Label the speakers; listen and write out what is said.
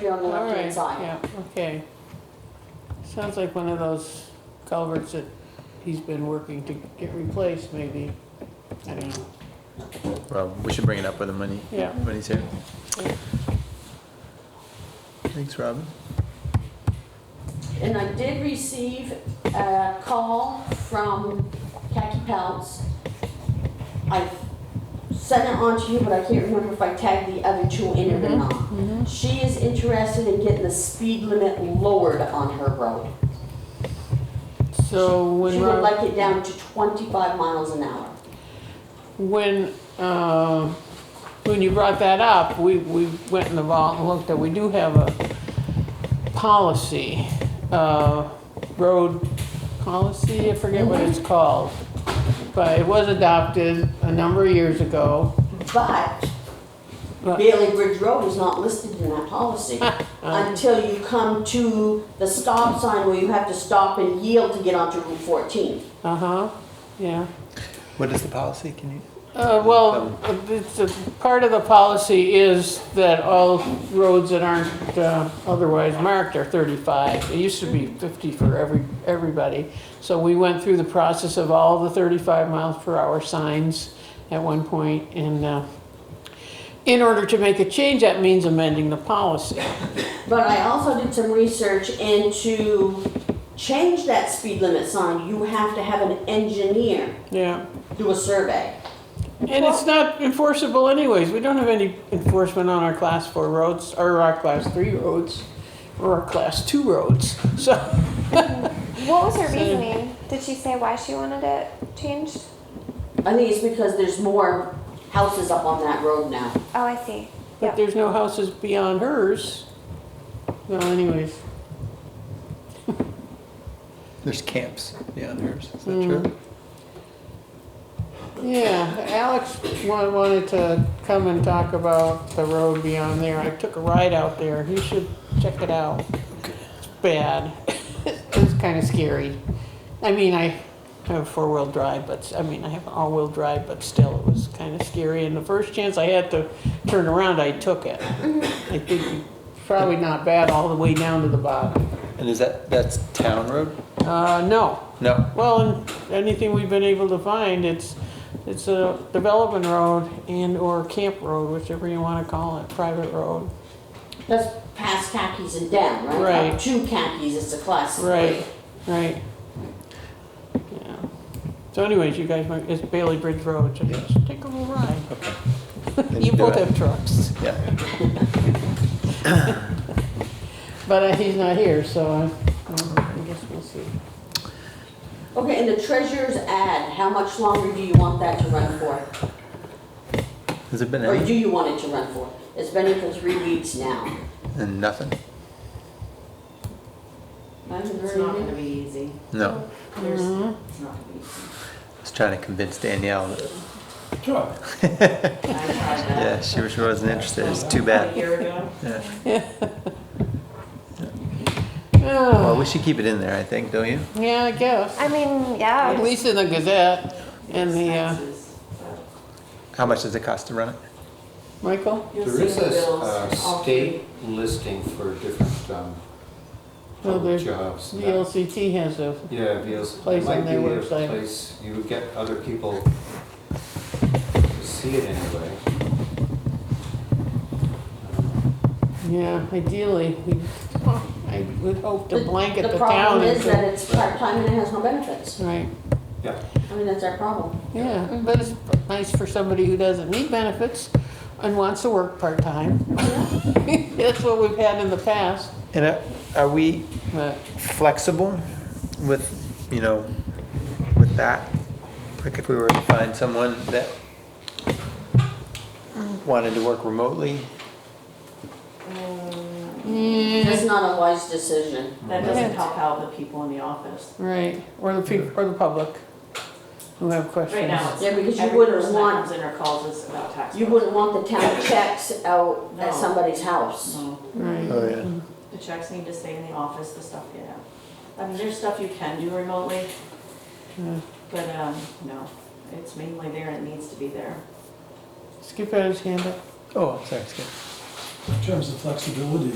Speaker 1: be on the
Speaker 2: All
Speaker 1: left-hand
Speaker 2: right,
Speaker 1: side.
Speaker 2: yeah, okay. Sounds like one of those culverts that he's been working to get replaced, maybe. I don't know.
Speaker 3: Well, we should bring it up with him when he,
Speaker 2: Yeah.
Speaker 3: when he's here. Thanks, Robin.
Speaker 1: And I did receive a call from Khaki Pelts. I sent it on to you, but I can't remember if I tagged the other two in it
Speaker 2: Mm-hmm.
Speaker 1: or not. She is interested in getting the speed limit lowered on her road.
Speaker 2: So
Speaker 1: She
Speaker 2: when,
Speaker 1: would
Speaker 2: Rob-
Speaker 1: like it down to 25 miles an hour.
Speaker 2: when, uh, when you brought that up, we, we went in the vault and looked at, we do have a policy, uh, road policy, I forget what
Speaker 1: Mm-hmm.
Speaker 2: it's called. But it was adopted a number of years ago.
Speaker 1: But
Speaker 2: But- Uh-huh.
Speaker 1: Bailey Bridge Road is not listed in that policy until you come to the stop sign where you have to stop and yield to get onto Route 14.
Speaker 2: Uh-huh, yeah.
Speaker 3: What is the policy? Can you?
Speaker 2: Uh, Well, uh, it's, a- part of the policy is that all roads that aren't uh, otherwise marked are 35. It used to be 50 for every, everybody. So we went through the process of all the 35 miles per hour signs at one point, and uh, in order to make a change, that means amending the policy.
Speaker 1: But I also did some research and to change that speed limit sign, you have to have an engineer
Speaker 2: Yeah.
Speaker 1: do a survey.
Speaker 2: And it's not enforceable anyways, we don't have any enforcement on our class four roads, or our class three roads, or our class two roads, so.
Speaker 4: What was her reasoning? Did she say why she wanted it changed?
Speaker 1: I think it's because there's more houses up on that road now.
Speaker 4: Oh, I see.
Speaker 2: But
Speaker 4: Yep.
Speaker 2: there's no houses beyond hers. Well, anyways,
Speaker 3: There's camps beyond hers, is that
Speaker 2: Mm.
Speaker 3: true?
Speaker 2: yeah, Alex wa- wanted to come and talk about the road beyond there, I took a ride out there, you should check it out. It's bad, it's kinda scary. I mean, I have a four-wheel drive, but, s- I mean, I have an all-wheel drive, but still, it was kinda scary, and the first chance I had to turn around, I took it. I think probably not bad all the way down to the bottom.
Speaker 3: And is that, that's town road?
Speaker 2: Uh, no,
Speaker 3: No.
Speaker 2: Well, and anything we've been able to find, it's, it's a development road and or camp road, whichever you wanna call it, private road.
Speaker 1: That's past khakis and down, right? Up
Speaker 2: Right.
Speaker 1: to khakis, it's a class. three.
Speaker 2: Right, right. Yeah. So anyways, you guys might, it's Bailey Bridge Road, so just take a little ride.
Speaker 3: Then
Speaker 2: You
Speaker 3: do
Speaker 2: both
Speaker 3: it.
Speaker 2: have trucks,
Speaker 3: Yeah,
Speaker 2: but uh, he's not here, so I, I guess we'll see.
Speaker 1: Okay, and the treasurer's ad, how much longer do you want that to run for?
Speaker 3: has it been
Speaker 1: Or
Speaker 3: any,
Speaker 1: do you want it to run for? It's been in for three weeks now.
Speaker 3: and nothing?
Speaker 1: I haven't
Speaker 5: It's
Speaker 1: heard
Speaker 5: not
Speaker 1: anything.
Speaker 5: gonna be easy.
Speaker 3: No,
Speaker 5: There's, it's not gonna be easy.
Speaker 3: I was trying to convince Danielle that,
Speaker 5: I tried
Speaker 3: yeah,
Speaker 5: that.
Speaker 3: she was- she wasn't interested, it's too
Speaker 5: A
Speaker 3: bad.
Speaker 5: year ago.
Speaker 3: Yeah.
Speaker 2: Ah,
Speaker 3: Well, we should keep it in there, I think, don't you?
Speaker 2: Yeah, I guess,
Speaker 4: I mean,
Speaker 2: at
Speaker 4: yeah.
Speaker 2: least in the Gazette and the, uh,
Speaker 5: Expenses, but
Speaker 3: How much does it cost to run it?
Speaker 2: Michael?
Speaker 5: You'll
Speaker 6: There
Speaker 5: see
Speaker 6: is
Speaker 5: the
Speaker 6: a
Speaker 5: bills.
Speaker 6: uh,
Speaker 5: all
Speaker 6: state listing for different
Speaker 2: Well,
Speaker 6: um, public
Speaker 2: Oh, there's
Speaker 6: jobs.
Speaker 2: The LCT has a,
Speaker 6: Yeah, VLCT.
Speaker 2: Place
Speaker 6: Might
Speaker 2: on their
Speaker 6: be a
Speaker 2: website.
Speaker 6: Place, you would get other people to see it anyway.
Speaker 2: Yeah, ideally, we, I would hope to
Speaker 1: The-
Speaker 2: blanket the town.
Speaker 1: problem is
Speaker 2: into-
Speaker 1: that it's part-time and it has no benefits.
Speaker 2: Right,
Speaker 6: Yeah,
Speaker 1: I mean, that's our problem.
Speaker 2: yeah, but it's nice for somebody who doesn't need benefits and wants to work part-time. That's what we've had in the past,
Speaker 3: And uh, are we
Speaker 2: but,
Speaker 3: flexible with, you know, with that? Like if we were to find someone that wanted to work remotely?
Speaker 1: It's not a wise decision.
Speaker 5: That doesn't help out the people in the office.
Speaker 2: right, or the people, or the public who have questions.
Speaker 5: Right now, it's
Speaker 1: Yeah, because you
Speaker 5: every
Speaker 1: wouldn't
Speaker 5: person that
Speaker 1: want-
Speaker 5: comes in or calls us about taxes.
Speaker 1: You wouldn't want the town checks out at
Speaker 5: No.
Speaker 1: somebody's house.
Speaker 2: Right,
Speaker 3: Oh, yeah.
Speaker 5: The checks need to stay in the office, the stuff, you know. I mean, there's stuff you can do remotely.
Speaker 2: Yeah.
Speaker 5: But, um, no, it's mainly there and it needs to be there.
Speaker 2: Skip had his hand up.
Speaker 3: Oh, I'm sorry, Skip.
Speaker 7: In terms of flexibility,